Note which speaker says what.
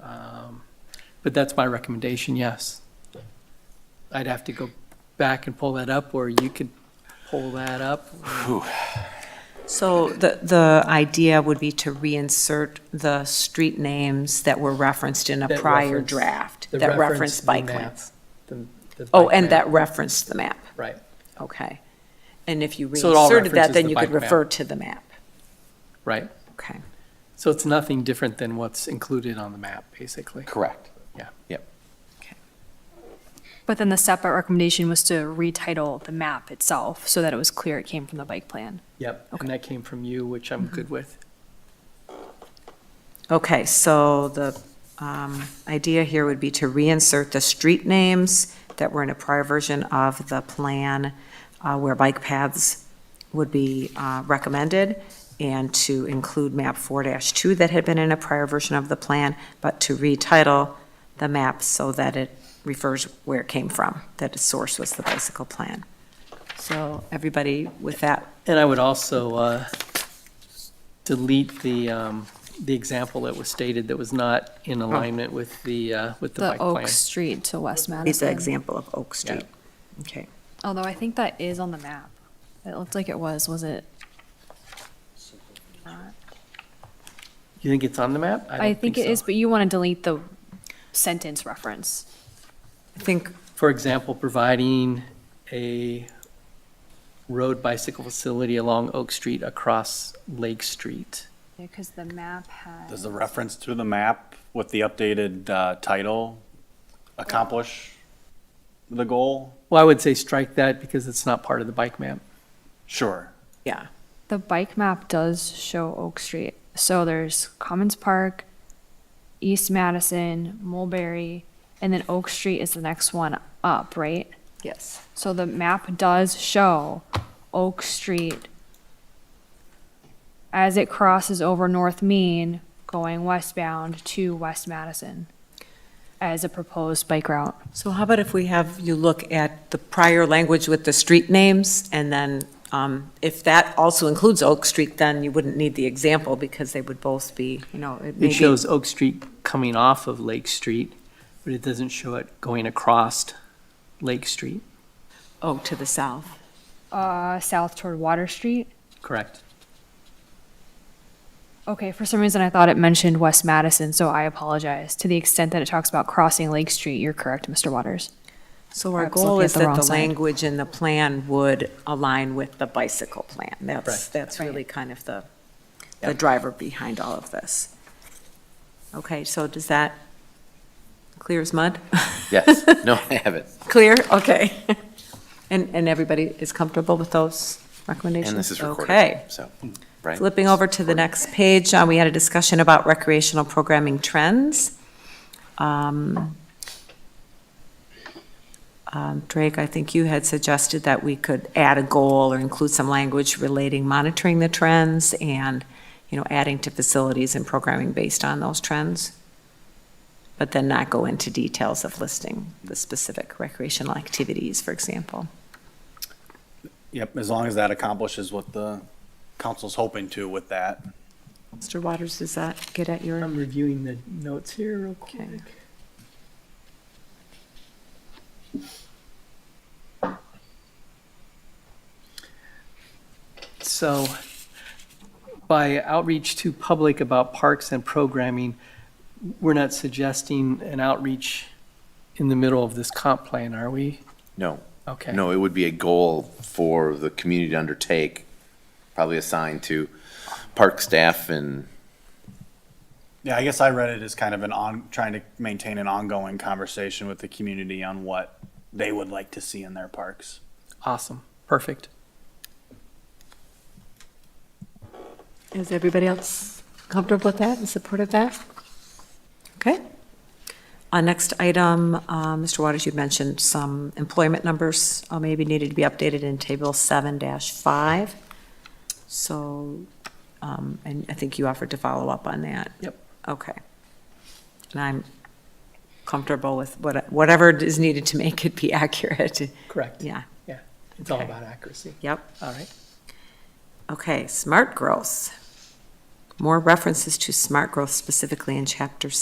Speaker 1: Um, But that's my recommendation, yes. I'd have to go back and pull that up, or you could pull that up.
Speaker 2: So the, the idea would be to reinsert the street names that were referenced in a
Speaker 1: That
Speaker 2: prior
Speaker 1: reference-
Speaker 2: draft,
Speaker 1: the
Speaker 2: that
Speaker 1: reference
Speaker 2: referenced
Speaker 1: the
Speaker 2: bike
Speaker 1: map,
Speaker 2: lanes.
Speaker 1: the- the
Speaker 2: Oh,
Speaker 1: bike
Speaker 2: and
Speaker 1: map,
Speaker 2: that referenced the map,
Speaker 1: Right.
Speaker 2: okay. And if you
Speaker 1: So it all
Speaker 2: reinserted that,
Speaker 1: references
Speaker 2: then
Speaker 1: the
Speaker 2: you could
Speaker 1: bike map.
Speaker 2: refer to the map,
Speaker 1: Right.
Speaker 2: okay.
Speaker 1: So it's nothing different than what's included on the map, basically.
Speaker 3: Correct.
Speaker 1: Yeah.
Speaker 3: Yep.
Speaker 4: But then the separate recommendation was to retitle the map itself so that it was clear it came from the bike plan.
Speaker 1: Yep. And that came from you, which I'm good with.
Speaker 2: Okay, so the um, idea here would be to reinsert the street names that were in a prior version of the plan uh, where bike paths would be uh, recommended, and to include map 4-2 that had been in a prior version of the plan, but to retitle the map so that it refers where it came from, that its source was the bicycle plan. So everybody with that,
Speaker 1: And I would also uh, delete the, um, the example that was stated that was not in alignment with the, uh, with the bike
Speaker 4: The
Speaker 1: plan.
Speaker 4: Oak Street to West
Speaker 2: is the
Speaker 4: Madison.
Speaker 2: example of Oak Street. Okay.
Speaker 4: Although I think that is on the map. It looked like it was, was it?
Speaker 1: You think it's on the map?
Speaker 4: I
Speaker 1: don't
Speaker 4: think it
Speaker 1: so.
Speaker 4: is, but you want to delete the sentence reference.
Speaker 2: I think
Speaker 1: For example, providing a road bicycle facility along Oak Street across Lake Street.
Speaker 4: Because the map had.
Speaker 5: Does the reference to the map with the updated uh, title accomplish the goal?
Speaker 1: Well, I would say strike that because it's not part of the bike map.
Speaker 5: Sure.
Speaker 4: The bike map does show Oak Street. So there's Commons Park, East Madison, Mulberry, and then Oak Street is the next one up, right?
Speaker 2: Yes.
Speaker 4: So the map does show Oak Street as it crosses over North Main going westbound to West Madison as a proposed bike route.
Speaker 2: So how about if we have you look at the prior language with the street names, and then um, if that also includes Oak Street, then you wouldn't need the example, because they would both be, you know, it may
Speaker 1: It
Speaker 2: be-
Speaker 1: shows Oak Street coming off of Lake Street, but it doesn't show it going across Lake Street,
Speaker 2: Oh, to the south.
Speaker 4: Uh, south toward Water Street.
Speaker 1: correct?
Speaker 4: Okay, for some reason I thought it mentioned West Madison, so I apologize. To the extent that it talks about crossing Lake Street, you're correct, Mr. Waters.
Speaker 2: So our
Speaker 4: Perhaps
Speaker 2: goal
Speaker 4: looking at
Speaker 2: is
Speaker 4: the
Speaker 2: that
Speaker 4: wrong
Speaker 2: the
Speaker 4: side.
Speaker 2: language in the plan would align with the bicycle plan. That's,
Speaker 1: Right.
Speaker 2: that's
Speaker 4: Right.
Speaker 2: really kind of the, the driver behind all of this. Okay, so does that clear as mud?
Speaker 3: Yes. No, I have it.
Speaker 2: Clear, okay. And, and everybody is comfortable with those recommendations?
Speaker 3: And this is
Speaker 2: Okay.
Speaker 3: recorded, so, right?
Speaker 2: Flipping over to the next page, uh, we had a discussion about recreational programming trends. Um, um, Drake, I think you had suggested that we could add a goal or include some language relating monitoring the trends and, you know, adding to facilities and programming based on those trends, but then not go into details of listing the specific recreational activities, for example.
Speaker 5: Yep, as long as that accomplishes what the council's hoping to with that.
Speaker 2: Mr. Waters, does that get at your?
Speaker 1: I'm reviewing the notes here real quick. So by outreach to public about parks and programming, we're not suggesting an outreach in the middle of this comp plan, are we?
Speaker 3: No,
Speaker 1: Okay.
Speaker 3: no, it would be a goal for the community to undertake, probably assigned to park staff and
Speaker 5: Yeah, I guess I read it as kind of an on, trying to maintain an ongoing conversation with the community on what they would like to see in their parks.
Speaker 1: Awesome. Perfect.
Speaker 2: Is everybody else comfortable with that and supportive of that? Okay. Uh, Next item, uh, Mr. Waters, you mentioned some employment numbers uh, maybe needed to be updated in Table 7-5. So, um, and I think you offered to follow up on that.
Speaker 1: Yep.
Speaker 2: Okay. And I'm comfortable with what- whatever is needed to make it be accurate.
Speaker 1: Correct.
Speaker 2: Yeah,
Speaker 1: Yeah. It's all
Speaker 2: Okay.
Speaker 1: about accuracy.
Speaker 2: yep.
Speaker 1: All right.
Speaker 2: Okay, smart growth. More references to smart growth specifically in Chapter